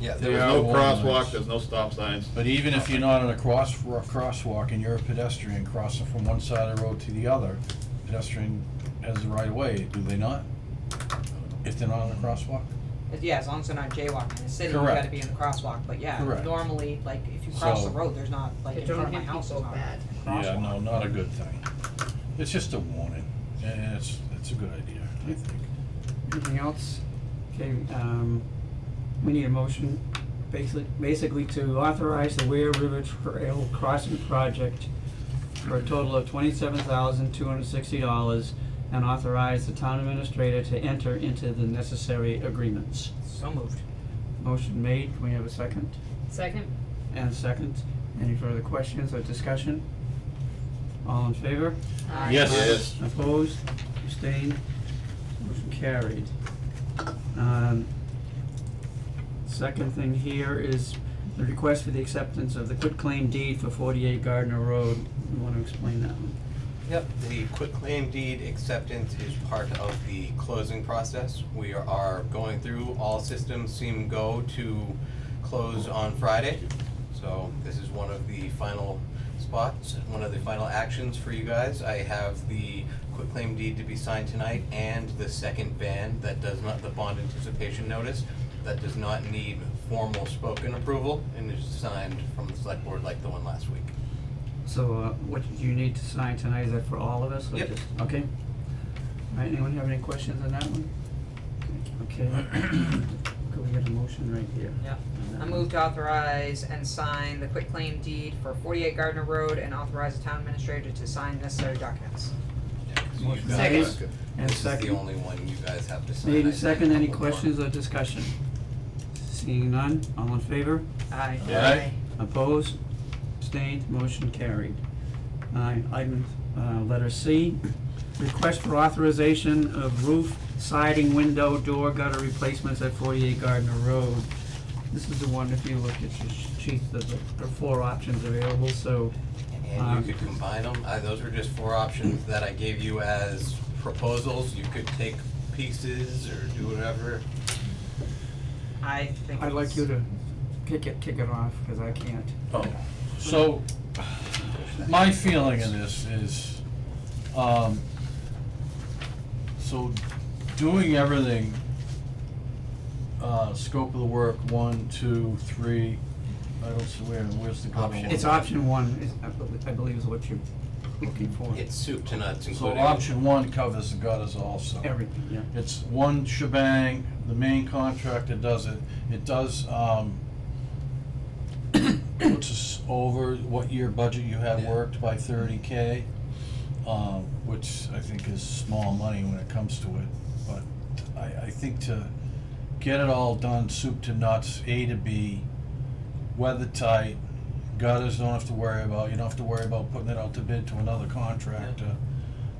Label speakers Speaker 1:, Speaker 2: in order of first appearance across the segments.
Speaker 1: Yeah,
Speaker 2: There
Speaker 3: There's
Speaker 2: are
Speaker 3: no
Speaker 2: warning
Speaker 3: crosswalk,
Speaker 2: lights.
Speaker 3: there's no stop signs.
Speaker 2: But even if you're not in a cross, a crosswalk and you're a pedestrian crossing from one side of the road to the other, pedestrian has the right of way, do they not? If they're not in a crosswalk?
Speaker 4: As- Yeah, as long as they're not jaywalking, in the city, you
Speaker 2: Correct.
Speaker 4: gotta be in the crosswalk, but yeah,
Speaker 2: Correct.
Speaker 4: normally, like, if you cross the
Speaker 2: So-
Speaker 4: road, there's not, like,
Speaker 5: They
Speaker 4: in front
Speaker 5: don't
Speaker 4: of my
Speaker 5: hit
Speaker 4: house,
Speaker 5: people
Speaker 4: there's not a
Speaker 5: bad.
Speaker 4: crosswalk.
Speaker 2: Yeah, no, not a good thing. It's just a warning, and it's, it's a good idea, I think.
Speaker 6: Anything else? Okay, um, we need a motion basically, basically to authorize the Ware River Trail Crossing Project for a total of twenty-seven thousand two hundred sixty dollars and authorize the town administrator to enter into the necessary agreements.
Speaker 4: So moved.
Speaker 6: Motion made, can we have a second?
Speaker 5: Second?
Speaker 6: And a second, any further questions or discussion? All in favor?
Speaker 5: Aye.
Speaker 3: Yes.
Speaker 6: um,
Speaker 3: Yes.
Speaker 6: Opposed, abstained, motion carried. Um, Second thing here is the request for the acceptance of the quitclaim deed for forty-eight Gardner Road. You wanna explain that one?
Speaker 1: Yep, the quitclaim deed acceptance is part of the closing process. We are going through, all systems seem go to close on Friday. So this is one of the final spots, one of the final actions for you guys. I have the quitclaim deed to be signed tonight and the second ban that does not, the bond anticipation notice, that does not need formal spoken approval and is signed from the select board like the one last week.
Speaker 6: So, uh, what you need to sign tonight, is that for all of us or
Speaker 1: Yep.
Speaker 6: just, okay? All right, anyone have any questions on that one? Okay, could we get a motion right here?
Speaker 4: Yep.
Speaker 6: on that
Speaker 4: I
Speaker 6: one?
Speaker 4: move to authorize and sign the quitclaim deed for forty-eight Gardner Road and authorize the town administrator to sign necessary documents.
Speaker 1: So you guys-
Speaker 6: Second. And
Speaker 1: This is the
Speaker 6: second.
Speaker 1: only one you guys have to sign.
Speaker 6: Made
Speaker 1: I
Speaker 6: in
Speaker 1: signed
Speaker 6: second,
Speaker 1: a
Speaker 6: any
Speaker 1: couple more.
Speaker 6: questions or discussion? Seeing none, all in favor?
Speaker 4: Aye.
Speaker 3: Aye.
Speaker 6: Opposed? Abstained? Motion carried. Uh, Item, uh, letter C, request for authorization of roof, siding, window, door gutter replacements at forty-eight Gardner Road. This is the one, if you look at your sheet, there's, a- there are four options available, so, Um,
Speaker 1: And you could combine them, I, those were just four options that I gave you as proposals, you could take pieces or do whatever.
Speaker 4: I think
Speaker 6: I'd like
Speaker 4: it's-
Speaker 6: you to kick it, kick it off, cause I can't.
Speaker 2: Oh, so, my feeling in this is, um, so doing everything, uh, scope of the work, one, two, three, I don't see where, where's the gutter?
Speaker 1: Option.
Speaker 2: one?
Speaker 6: It's option one, is, I believe, I believe is what you're looking for.
Speaker 1: It's soup to nuts,
Speaker 2: So
Speaker 1: including.
Speaker 2: option one covers the gutters also.
Speaker 6: Everything, yeah.
Speaker 2: It's one shebang, the main contractor does it, it does, um, puts us over what your budget you had
Speaker 1: Yeah.
Speaker 2: worked by thirty K, um, which I think is small money when it comes to it, but I, I think to get it all done, soup to nuts, A to B, weather tight, gutters don't have to worry about, you don't have to worry about putting it out to bid to another contractor.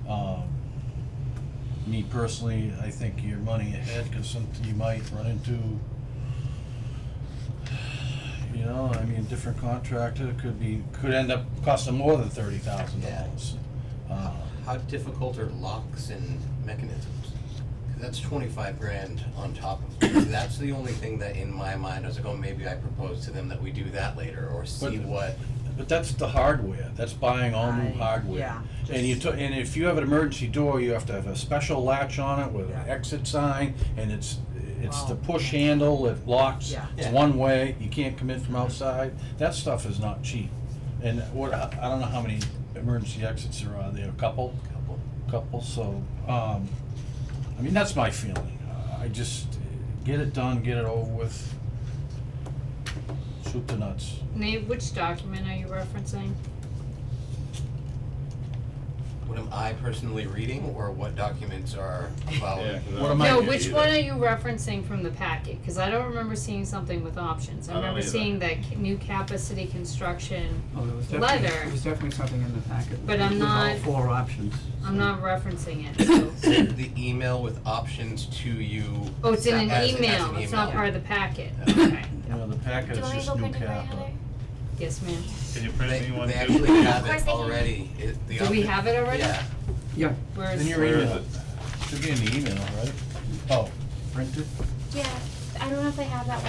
Speaker 2: Um, me personally, I think your money ahead, cause some, you might run into, you know, I mean, different contractor could be, could end up costing more than thirty thousand dollars. Um,
Speaker 1: How how difficult are locks and mechanisms? 'Cause that's twenty-five grand on top of, it. that's the only thing that in my mind, I was like, oh, maybe I propose to them that we do that later, or see
Speaker 2: But-
Speaker 1: what.
Speaker 2: But that's the hardware, that's buying all new
Speaker 4: I-
Speaker 2: hardware.
Speaker 4: yeah,
Speaker 2: And you,
Speaker 4: just-
Speaker 2: to- and if you have an emergency door, you have to have a special latch on it with an
Speaker 4: Yeah.
Speaker 2: exit sign, and it's, it's the
Speaker 4: Wow.
Speaker 2: push handle, it locks,
Speaker 4: Yeah. Mm-hmm.
Speaker 2: it's
Speaker 1: Yeah.
Speaker 2: one way, you can't come in from outside. That stuff is not cheap. And what, I I don't know how many emergency exits there are, there are a couple?
Speaker 1: Couple.
Speaker 2: Couple, so, um, I mean, that's my feeling. Uh, I just, uh, get it done, get it over with. Shoot the nuts.
Speaker 5: Nate, which document are you referencing?
Speaker 1: What am I personally reading, or what documents are about?
Speaker 3: Yeah, 'cause I
Speaker 2: What
Speaker 3: don't
Speaker 2: am I-
Speaker 3: get
Speaker 5: No,
Speaker 3: it
Speaker 5: which
Speaker 3: either.
Speaker 5: one are you referencing from the packet? Cause I don't remember seeing something with options.
Speaker 3: I
Speaker 5: I
Speaker 3: don't
Speaker 5: remember
Speaker 3: either.
Speaker 5: seeing that ca- new Kappa City construction.
Speaker 6: Oh, there was definitely,
Speaker 5: Leather.
Speaker 6: there was definitely something in the packet.
Speaker 5: But I'm
Speaker 6: with all
Speaker 5: not-
Speaker 6: four options.
Speaker 5: I'm not referencing it, so.
Speaker 1: Send the email with options to you.
Speaker 5: Oh, it's in an
Speaker 1: As- as
Speaker 5: email.
Speaker 1: an
Speaker 5: It's not
Speaker 1: email.
Speaker 5: part of the packet.
Speaker 1: Yeah.
Speaker 5: Okay.
Speaker 2: You know, the packet
Speaker 7: Do
Speaker 2: is
Speaker 7: you want me to
Speaker 2: just
Speaker 7: go
Speaker 2: new
Speaker 7: print it for you,
Speaker 2: cap.
Speaker 7: Heather?
Speaker 5: Yes, ma'am.
Speaker 3: Can you print
Speaker 1: They,
Speaker 3: me one
Speaker 1: they
Speaker 3: too?
Speaker 1: actually have
Speaker 7: Of course
Speaker 1: it
Speaker 7: they can.
Speaker 1: already. It- the
Speaker 5: Do we
Speaker 1: option-
Speaker 5: have it already?
Speaker 1: Yeah,
Speaker 6: Yeah,
Speaker 5: Where
Speaker 2: In
Speaker 5: is,
Speaker 2: your
Speaker 3: Where is
Speaker 2: email.
Speaker 3: it?
Speaker 2: Should be in the email, right? Oh, printed?
Speaker 7: Yeah, I don't know if they have that one.